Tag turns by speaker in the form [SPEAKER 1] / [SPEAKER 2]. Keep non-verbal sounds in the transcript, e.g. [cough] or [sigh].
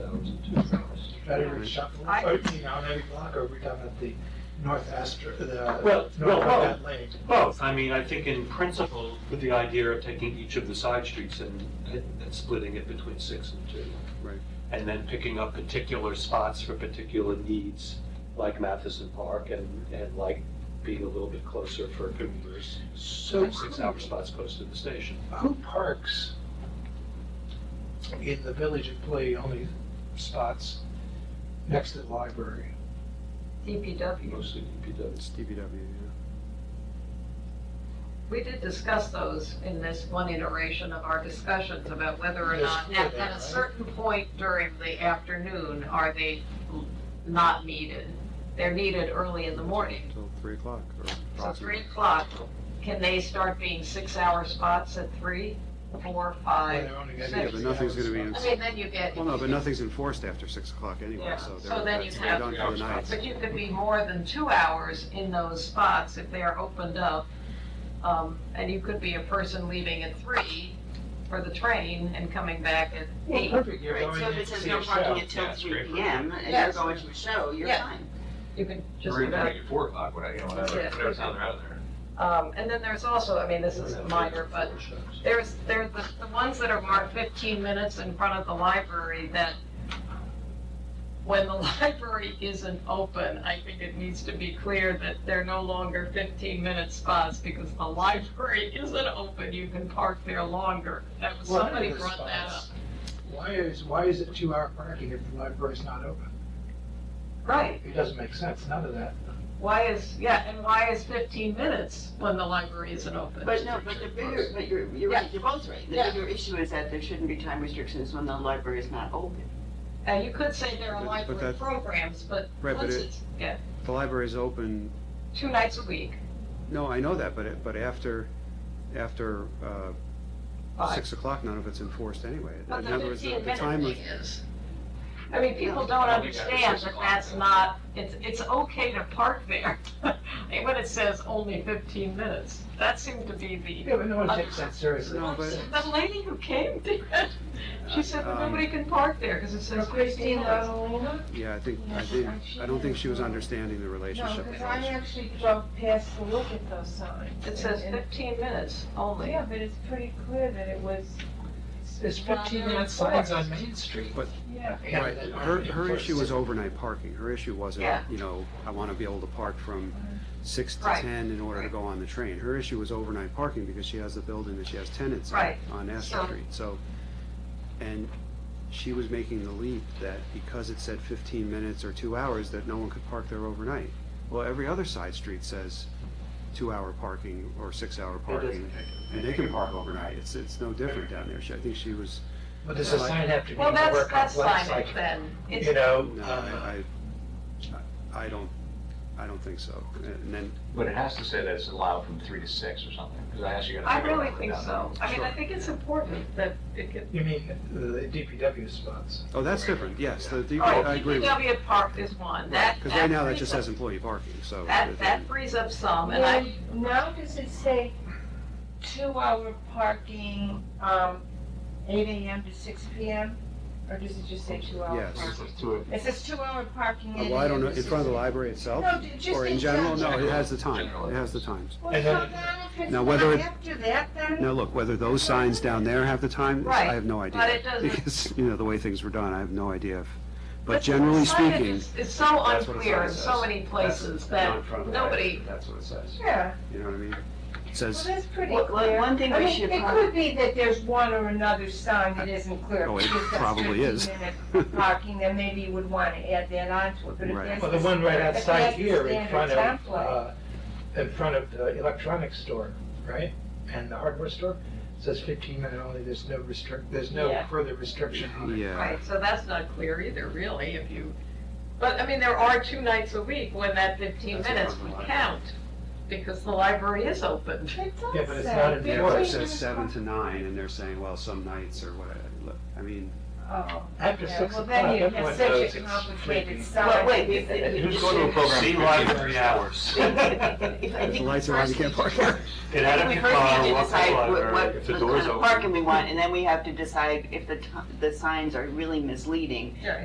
[SPEAKER 1] That every shop,
[SPEAKER 2] I-
[SPEAKER 1] you know, on every block over down at the North Astor, the
[SPEAKER 3] Well,
[SPEAKER 1] North
[SPEAKER 3] well, well.
[SPEAKER 1] Outlet Lane.
[SPEAKER 3] Both, I mean, I think in principle, with the idea of taking each of the side streets and, and splitting it between six and two.
[SPEAKER 4] Right.
[SPEAKER 3] And then picking up particular spots for particular needs, like Matheson Park and, and like being a little bit closer for commuters.
[SPEAKER 1] So
[SPEAKER 3] Like six hour spots close to the station.
[SPEAKER 1] who parks in the village employee only spots next to the library?
[SPEAKER 2] DPW.
[SPEAKER 3] Mostly DPW.
[SPEAKER 4] It's DPW, yeah.
[SPEAKER 2] We did discuss those in this one iteration of our discussions about whether or
[SPEAKER 1] Yes,
[SPEAKER 2] not,
[SPEAKER 1] we
[SPEAKER 2] at,
[SPEAKER 1] did,
[SPEAKER 2] at a
[SPEAKER 1] right?
[SPEAKER 2] certain point during the afternoon, are they not needed? They're needed early in the morning.
[SPEAKER 4] Till three o'clock or
[SPEAKER 2] So
[SPEAKER 4] approximately.
[SPEAKER 2] three o'clock, can they start being six-hour spots at three, four,
[SPEAKER 1] When
[SPEAKER 2] five?
[SPEAKER 1] they're only
[SPEAKER 2] Yeah,
[SPEAKER 1] gonna
[SPEAKER 2] but
[SPEAKER 1] use
[SPEAKER 4] nothing's
[SPEAKER 1] the
[SPEAKER 4] gonna be
[SPEAKER 1] hours.
[SPEAKER 2] I mean, then you get,
[SPEAKER 4] Well, no, but nothing's enforced after six o'clock
[SPEAKER 2] Yeah,
[SPEAKER 4] anyway, so
[SPEAKER 2] so
[SPEAKER 4] they're,
[SPEAKER 2] then you
[SPEAKER 4] that's
[SPEAKER 2] have-
[SPEAKER 4] they're done for the night.
[SPEAKER 2] but you could be more than two hours in those spots if they are opened up. Um, and you could be a person leaving at three for the train and coming back at
[SPEAKER 1] Well,
[SPEAKER 2] eight.
[SPEAKER 1] perfect, you're
[SPEAKER 5] Right,
[SPEAKER 1] going
[SPEAKER 5] so if
[SPEAKER 1] in
[SPEAKER 5] it
[SPEAKER 1] to
[SPEAKER 5] says
[SPEAKER 1] see
[SPEAKER 5] no
[SPEAKER 1] a show.
[SPEAKER 5] parking until
[SPEAKER 6] Yeah, it's
[SPEAKER 5] three
[SPEAKER 6] great for-
[SPEAKER 5] P M, and you're
[SPEAKER 2] Yes.
[SPEAKER 5] going to a show, you're
[SPEAKER 2] Yeah.
[SPEAKER 5] fine.
[SPEAKER 2] You could just
[SPEAKER 6] We're
[SPEAKER 2] about
[SPEAKER 6] gonna at four o'clock, whatever, you know, whatever,
[SPEAKER 2] Yeah.
[SPEAKER 6] whatever's on there, out of there.
[SPEAKER 2] Um, and then there's also, I mean, this is minor, but there's, there's the, the ones that are marked fifteen minutes in front of the library that when the [laughs] library isn't open, I think it needs to be clear that they're no longer fifteen minute spots because the [laughs] library isn't open, you can park there longer. That was,
[SPEAKER 1] Well, I know
[SPEAKER 2] somebody
[SPEAKER 1] the
[SPEAKER 2] brought that up.
[SPEAKER 1] spots. Why is, why is it two-hour parking if the library's not open?
[SPEAKER 2] Right,
[SPEAKER 1] It doesn't make sense, none of that.
[SPEAKER 2] why is, yeah, and why is fifteen minutes when the library isn't open?
[SPEAKER 5] But no, but the bigger, but you're, you're right, you're both right. The
[SPEAKER 2] Yeah.
[SPEAKER 5] bigger issue is that there shouldn't be time restrictions when the library is not open.
[SPEAKER 2] Uh, you could say there are
[SPEAKER 4] But- but
[SPEAKER 2] library
[SPEAKER 4] that-
[SPEAKER 2] programs, but
[SPEAKER 4] Right, but
[SPEAKER 2] once
[SPEAKER 4] it-
[SPEAKER 2] it's, yeah,
[SPEAKER 4] The library's open,
[SPEAKER 2] two nights a week,
[SPEAKER 4] no, I know that, but it, but after, after, uh,
[SPEAKER 2] five.
[SPEAKER 4] six o'clock, none of it's enforced anyway.
[SPEAKER 2] But
[SPEAKER 4] In
[SPEAKER 2] the
[SPEAKER 4] other words,
[SPEAKER 2] fifteen
[SPEAKER 4] the
[SPEAKER 2] minute
[SPEAKER 4] time of,
[SPEAKER 2] thing is, I mean, people don't
[SPEAKER 6] I don't think after
[SPEAKER 2] understand
[SPEAKER 6] six
[SPEAKER 2] that
[SPEAKER 6] o'clock,
[SPEAKER 2] that's
[SPEAKER 6] yeah.
[SPEAKER 2] not, it's, it's okay to park there. [laughs] And when it says only fifteen minutes, that seemed to be the.
[SPEAKER 1] Yeah, but no one takes that seriously.
[SPEAKER 4] No, but-
[SPEAKER 2] The lady who came, [laughs] did. she said that
[SPEAKER 4] Um,
[SPEAKER 2] nobody can park there because it says fifteen
[SPEAKER 7] uh,
[SPEAKER 2] minutes.
[SPEAKER 4] yeah, I think, I didn't, I don't think she was understanding the
[SPEAKER 7] No,
[SPEAKER 4] relationship.
[SPEAKER 7] because I actually drove past to look at those signs.
[SPEAKER 2] It says
[SPEAKER 7] and- and-
[SPEAKER 2] fifteen minutes only.
[SPEAKER 7] Yeah, but it's pretty clear that it was,
[SPEAKER 1] There's fifteen-minute signs on Main Street.
[SPEAKER 7] yeah.
[SPEAKER 1] Yeah,
[SPEAKER 4] Right,
[SPEAKER 1] that
[SPEAKER 4] her,
[SPEAKER 1] aren't
[SPEAKER 4] her issue was
[SPEAKER 1] enforced.
[SPEAKER 4] overnight parking, her issue wasn't,
[SPEAKER 2] Yeah.
[SPEAKER 4] you know, I wanna be able to park from six to
[SPEAKER 2] Right.
[SPEAKER 4] ten in order to go on the train. Her issue was overnight parking because she has the building that she has tenants in
[SPEAKER 2] Right.
[SPEAKER 4] on Astor
[SPEAKER 2] So-
[SPEAKER 4] Street, so. And she was making the leap that because it said fifteen minutes or two hours, that no one could park there overnight. Well, every other side street says two-hour parking or six-hour parking, and they can park overnight, it's, it's no different down there, she, I think she was,
[SPEAKER 1] But does the sign have to be
[SPEAKER 2] Well,
[SPEAKER 1] more
[SPEAKER 2] that's, that's
[SPEAKER 1] complex,
[SPEAKER 2] fine
[SPEAKER 1] like,
[SPEAKER 2] then. It's
[SPEAKER 1] you know?
[SPEAKER 4] no,
[SPEAKER 1] uh,
[SPEAKER 4] I, I, I don't, I don't think so, and then
[SPEAKER 6] But it has to say that it's allowed from three to six or something, because I actually got.
[SPEAKER 2] I really think so. I mean, I think it's important that it could.
[SPEAKER 1] You mean the DPW spots?
[SPEAKER 4] Oh, that's different, yes, the, the-
[SPEAKER 2] All right,
[SPEAKER 4] I agree with you.
[SPEAKER 2] DPW Park is one. Oh. That,
[SPEAKER 4] Because right now, that
[SPEAKER 2] frees
[SPEAKER 4] just
[SPEAKER 2] up-
[SPEAKER 4] says employee parking, so.
[SPEAKER 2] That, that frees up some, Um, and I,
[SPEAKER 7] And now does it say two-hour parking, um, eight AM to six PM? Or does it just say two-hour
[SPEAKER 4] Yes. Oh,
[SPEAKER 7] parking?
[SPEAKER 6] To it.
[SPEAKER 7] It says two-hour parking.
[SPEAKER 4] Well, I don't know, in front of the library itself?
[SPEAKER 7] No, ju- just
[SPEAKER 4] Or in
[SPEAKER 7] in
[SPEAKER 4] general, no, it
[SPEAKER 7] general.
[SPEAKER 4] has the time,
[SPEAKER 6] General.
[SPEAKER 4] it has the times.
[SPEAKER 7] Well,
[SPEAKER 1] And
[SPEAKER 7] so
[SPEAKER 1] then-
[SPEAKER 7] now if it's
[SPEAKER 4] Now, whether
[SPEAKER 7] not
[SPEAKER 4] it-
[SPEAKER 7] after that, then?
[SPEAKER 4] Now, look, whether those signs down there have the time, I have no
[SPEAKER 2] Right,
[SPEAKER 4] idea.
[SPEAKER 2] but it doesn't-
[SPEAKER 4] Because, you know, the way things were done, I have no idea. if- But
[SPEAKER 2] But
[SPEAKER 4] generally
[SPEAKER 2] signage
[SPEAKER 4] speaking,
[SPEAKER 2] is- It's so
[SPEAKER 3] That's what it
[SPEAKER 2] unclear in so
[SPEAKER 3] says.
[SPEAKER 2] many places that
[SPEAKER 3] Not from the
[SPEAKER 2] nobody,
[SPEAKER 3] library, That's what it says.
[SPEAKER 7] Yeah,
[SPEAKER 4] you know what I mean? It
[SPEAKER 7] well,
[SPEAKER 4] says,
[SPEAKER 7] that's pretty
[SPEAKER 5] Well, well,
[SPEAKER 7] clear.
[SPEAKER 5] one thing
[SPEAKER 7] I
[SPEAKER 5] we
[SPEAKER 7] mean,
[SPEAKER 5] should
[SPEAKER 7] It
[SPEAKER 5] probably-
[SPEAKER 7] could be that there's one or another sign that isn't clear.
[SPEAKER 4] Oh, it
[SPEAKER 7] because that's
[SPEAKER 4] probably is.
[SPEAKER 7] 15-minute Parking, then maybe you would want to add that on to it, but if
[SPEAKER 4] Right.
[SPEAKER 7] that's.
[SPEAKER 1] Well, the one right
[SPEAKER 7] if
[SPEAKER 1] outside
[SPEAKER 7] that's the
[SPEAKER 1] here in
[SPEAKER 7] standard
[SPEAKER 1] front of,
[SPEAKER 7] template-
[SPEAKER 1] uh, in front of the electronics store, right? And the hardware store, says fifteen minute only, there's no restrict, there's no
[SPEAKER 7] Yeah.
[SPEAKER 1] further restriction on it.
[SPEAKER 4] [laughs] yeah,
[SPEAKER 2] right, so that's not clear either, really, if you, but, I mean, there are two nights a week when that fifteen
[SPEAKER 4] That's a
[SPEAKER 2] minutes
[SPEAKER 4] problem,
[SPEAKER 2] would
[SPEAKER 4] right?
[SPEAKER 2] count, because the library is open.
[SPEAKER 7] It does
[SPEAKER 1] Yeah, but it's
[SPEAKER 7] say
[SPEAKER 1] not in the
[SPEAKER 4] yeah, but it
[SPEAKER 7] 15
[SPEAKER 4] says
[SPEAKER 7] minutes
[SPEAKER 4] seven to nine, and they're saying, well, some nights or whatever. Look, I mean,
[SPEAKER 7] Oh,
[SPEAKER 1] After
[SPEAKER 7] yeah,
[SPEAKER 1] six
[SPEAKER 7] well,
[SPEAKER 1] o'clock,
[SPEAKER 7] then you
[SPEAKER 1] everyone
[SPEAKER 7] have
[SPEAKER 1] knows
[SPEAKER 7] such a
[SPEAKER 1] it's
[SPEAKER 7] complicated
[SPEAKER 1] sleeping.
[SPEAKER 7] sign.
[SPEAKER 5] But wait, we- we-
[SPEAKER 6] Who's going to a program?
[SPEAKER 3] See library
[SPEAKER 5] [laughs]
[SPEAKER 3] hours.
[SPEAKER 5] If I
[SPEAKER 4] if
[SPEAKER 5] think
[SPEAKER 4] the lights are on, you
[SPEAKER 5] first
[SPEAKER 4] can't
[SPEAKER 5] we
[SPEAKER 4] park
[SPEAKER 5] should-
[SPEAKER 4] there.
[SPEAKER 3] Get out of
[SPEAKER 5] We
[SPEAKER 3] your
[SPEAKER 5] first
[SPEAKER 3] car,
[SPEAKER 5] need to
[SPEAKER 3] walk to the
[SPEAKER 5] decide what,
[SPEAKER 3] library,
[SPEAKER 5] what
[SPEAKER 3] if the
[SPEAKER 5] kind
[SPEAKER 3] door's
[SPEAKER 5] of
[SPEAKER 3] open.
[SPEAKER 5] parking we want, and then we have to decide if the, t- the signs are really misleading.